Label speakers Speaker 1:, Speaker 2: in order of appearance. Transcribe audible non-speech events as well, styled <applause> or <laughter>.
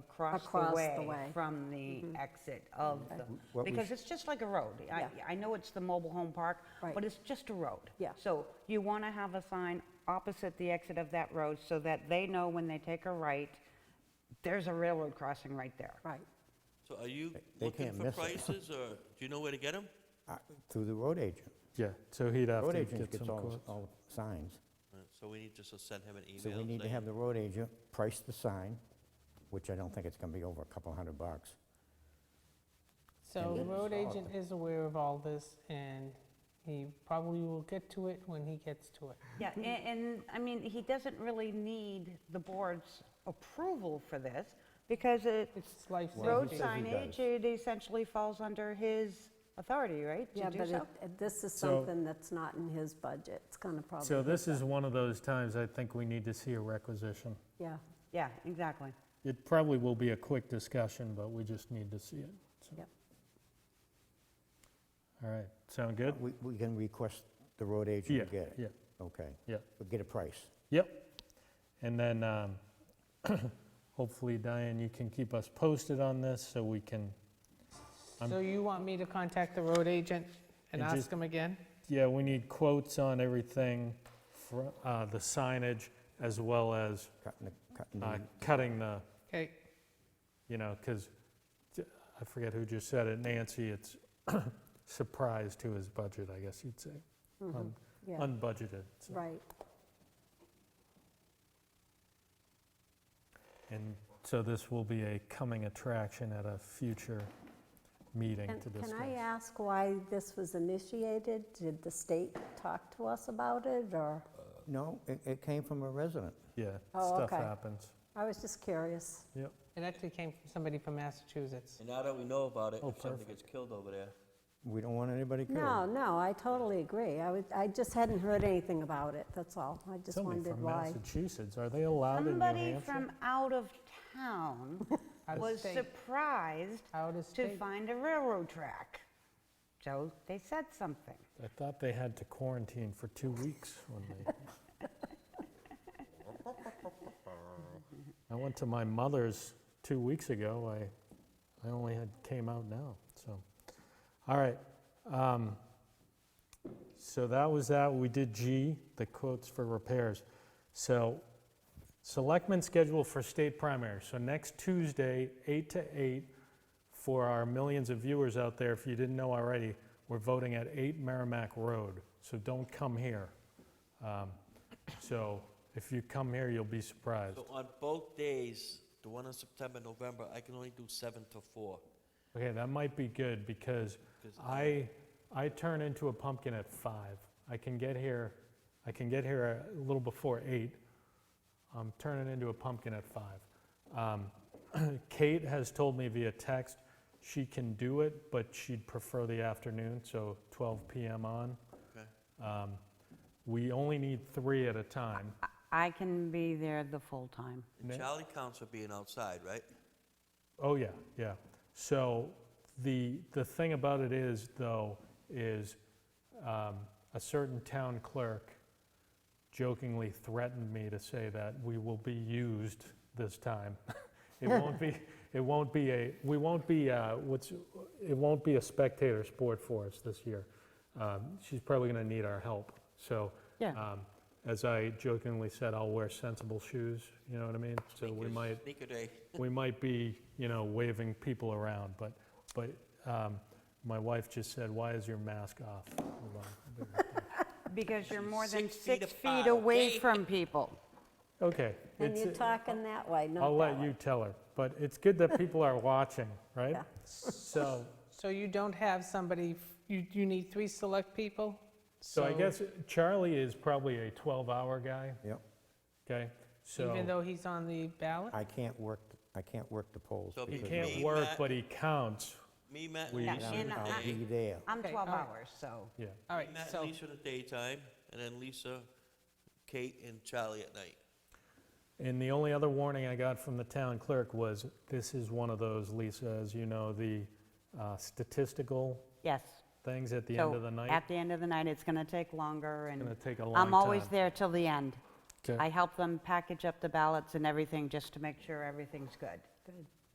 Speaker 1: across
Speaker 2: Across
Speaker 1: the
Speaker 2: the
Speaker 1: way
Speaker 2: way. Mm-hmm.
Speaker 1: from the exit of the,
Speaker 3: What we
Speaker 1: because
Speaker 3: sh-
Speaker 1: it's just like a road. I,
Speaker 2: Yeah.
Speaker 1: I know it's the mobile home park,
Speaker 2: Right.
Speaker 1: but it's just a road.
Speaker 2: Yeah.
Speaker 1: So you want to have a sign opposite the exit of that road so that they know when they take a right, there's a railroad crossing right there.
Speaker 2: Right.
Speaker 4: So are you
Speaker 3: they
Speaker 4: looking
Speaker 3: can't
Speaker 4: for
Speaker 3: miss it. <laughs>
Speaker 4: prices, or do you know where to get them?
Speaker 3: Uh, Through the road agent.
Speaker 5: Yeah, so he'd have
Speaker 3: Road
Speaker 5: to
Speaker 3: agent
Speaker 5: get
Speaker 3: gets
Speaker 5: some
Speaker 3: all,
Speaker 5: quotes.
Speaker 3: all signs.
Speaker 4: Uh, So we need just to send him an email.
Speaker 3: So we need to
Speaker 4: saying-
Speaker 3: have the road agent price the sign, which I don't think it's going to be over a couple hundred bucks.
Speaker 6: So the
Speaker 3: then
Speaker 6: road
Speaker 3: solve
Speaker 6: agent is aware of all this, and he probably will get to it when he gets to it.
Speaker 1: Yeah, a-
Speaker 2: mm-hmm.
Speaker 1: and, I mean, he doesn't really need the board's approval for this because it,
Speaker 6: It's life safety.
Speaker 1: road
Speaker 3: says he
Speaker 1: signage,
Speaker 3: does.
Speaker 1: it essentially falls under his authority, right? to
Speaker 2: Yeah,
Speaker 1: do
Speaker 2: but
Speaker 1: so?
Speaker 2: it- it- this is
Speaker 5: So-
Speaker 2: something that's not in his budget. It's gonna probably.
Speaker 5: So this is one of those times I think we need to see a requisition.
Speaker 2: Yeah,
Speaker 1: Yeah, exactly.
Speaker 5: It probably will be a quick discussion, but we just need to see it. so.
Speaker 2: Yep.
Speaker 5: All right, sound good?
Speaker 3: We, we can request the road agent
Speaker 5: Yeah,
Speaker 3: to get it?
Speaker 5: yeah,
Speaker 3: Okay,
Speaker 5: yeah.
Speaker 3: we'll get a price.
Speaker 5: Yep. And then um, <coughs> hopefully, Diane, you can keep us posted on this so we can, I'm-
Speaker 6: So you want me to contact the road agent and
Speaker 5: And
Speaker 6: ask
Speaker 5: just-
Speaker 6: him again?
Speaker 5: yeah, we need quotes on everything, fro- uh, the signage, as well as
Speaker 3: Cutting the, cutting
Speaker 5: uh,
Speaker 3: the,
Speaker 5: cutting the,
Speaker 6: Okay,
Speaker 5: you know, because I forget who just said it, Nancy, it's <coughs> surprise to his budget, I guess you'd say, um, Un-
Speaker 2: Mm-hmm. yeah,
Speaker 5: unbudgeted. so.
Speaker 2: right.
Speaker 5: And so this will be a coming attraction at a future meeting
Speaker 2: And
Speaker 5: to discuss.
Speaker 2: Can I ask why this was initiated? Did the state talk to us about it, or?
Speaker 3: no, it, it came from a resident.
Speaker 5: Yeah,
Speaker 2: Oh,
Speaker 5: stuff
Speaker 2: okay.
Speaker 5: happens.
Speaker 2: I was just curious.
Speaker 5: Yep.
Speaker 6: it actually came from somebody from Massachusetts.
Speaker 4: And now that we know about it,
Speaker 5: Oh,
Speaker 4: if something
Speaker 5: perfect.
Speaker 4: gets killed over there,
Speaker 3: We don't want anybody killed.
Speaker 2: No, no, I totally agree. I was, I just hadn't heard anything about it, that's all. I just
Speaker 5: Somebody
Speaker 2: wondered
Speaker 5: from
Speaker 2: why.
Speaker 5: Massachusetts, are they allowed in New
Speaker 1: Somebody
Speaker 5: Hampshire?
Speaker 1: from out of
Speaker 5: <laughs>
Speaker 1: town
Speaker 6: Out of
Speaker 1: was
Speaker 6: state.
Speaker 1: surprised
Speaker 6: Out of
Speaker 1: to
Speaker 6: state.
Speaker 1: find a railroad track. So they said something.
Speaker 5: I thought they had to quarantine for two weeks when they. I went to my mother's two weeks ago. I, I only had, came out now, so. All right. um, So that was that. We did G, the quotes for repairs. So selectmen schedule for state primary. So next Tuesday, eight to eight, for our millions of viewers out there, if you didn't know already, we're voting at 8 Merrimack Road, so don't come here. Um, So if you come here, you'll be surprised.
Speaker 4: so on both days, the one in September, November, I can only do seven to four.
Speaker 5: Okay, that might be good, because
Speaker 4: 'Cause-
Speaker 5: I, I turn into a pumpkin at 5. I can get here, I can get here a little before 8. I'm turning into a pumpkin at 5. Um, <clears throat> Kate has told me via text, she can do it, but she'd prefer the afternoon, so 12 PM on.
Speaker 4: Okay.
Speaker 5: Um, We only need three at a time.
Speaker 1: I can be there the full time.
Speaker 5: Ne-
Speaker 4: Charlie counts for being outside, right?
Speaker 5: Oh, yeah, yeah. So the, the thing about it is, though, is um, a certain town clerk jokingly threatened me to say that we will be used this time. <laughs> It won't be, it won't be a, we won't be, uh, what's, it won't be a spectator sport for us this year. Um, She's probably going to need our help. So
Speaker 1: Yeah.
Speaker 5: um, as I jokingly said, I'll wear sensible shoes, you know what I mean? So we
Speaker 4: Sneakers-
Speaker 5: might,
Speaker 4: Sneaker day.
Speaker 5: we might be, you know, waving people around, but, but um, my wife just said, why is your mask off? Hold on, I'll be right back.
Speaker 1: Because you're more than
Speaker 4: Six feet
Speaker 1: six
Speaker 4: apart,
Speaker 1: feet away
Speaker 4: okay?
Speaker 1: from people.
Speaker 5: Okay.
Speaker 2: And
Speaker 5: it's- uh,
Speaker 2: you're talking that way, not
Speaker 5: I'll
Speaker 2: that
Speaker 5: let
Speaker 2: way.
Speaker 5: you tell her, but it's good that people are watching, <laughs> right?
Speaker 2: Yeah.
Speaker 5: So,
Speaker 6: So you don't have somebody, f- you, you need three select people?
Speaker 5: so I guess Charlie is probably a 12-hour guy,
Speaker 3: Yep,
Speaker 5: okay? So
Speaker 6: Even though he's on the ballot?
Speaker 3: I can't work, I can't work the polls.
Speaker 4: So
Speaker 5: he
Speaker 4: it'd
Speaker 3: because
Speaker 4: be
Speaker 3: of-
Speaker 5: can't
Speaker 4: Me,
Speaker 5: work,
Speaker 4: Matt-
Speaker 5: but he counts,
Speaker 4: Me, Matt,
Speaker 5: We-
Speaker 4: and
Speaker 1: Yeah,
Speaker 4: Lisa in
Speaker 1: and
Speaker 4: the
Speaker 1: I-
Speaker 3: I'll
Speaker 4: day.
Speaker 3: be there.
Speaker 1: I'm
Speaker 6: Okay,
Speaker 1: 12
Speaker 6: all right.
Speaker 1: hours, so.
Speaker 5: yeah.
Speaker 6: All right,
Speaker 4: Matt
Speaker 6: so,
Speaker 4: and Lisa in the daytime, and then Lisa, Kate, and Charlie at night.
Speaker 5: And the only other warning I got from the town clerk was, this is one of those, Lisa, as you know, the uh, statistical
Speaker 1: Yes.
Speaker 5: things at the
Speaker 1: So
Speaker 2: Oh,
Speaker 5: end of the night.
Speaker 1: At the end of the night, it's going to take longer and.
Speaker 5: gonna take a long
Speaker 1: I'm always
Speaker 5: time.
Speaker 1: there till the end.
Speaker 5: Okay.
Speaker 1: I help them package up the ballots and everything just to make sure everything's good. good.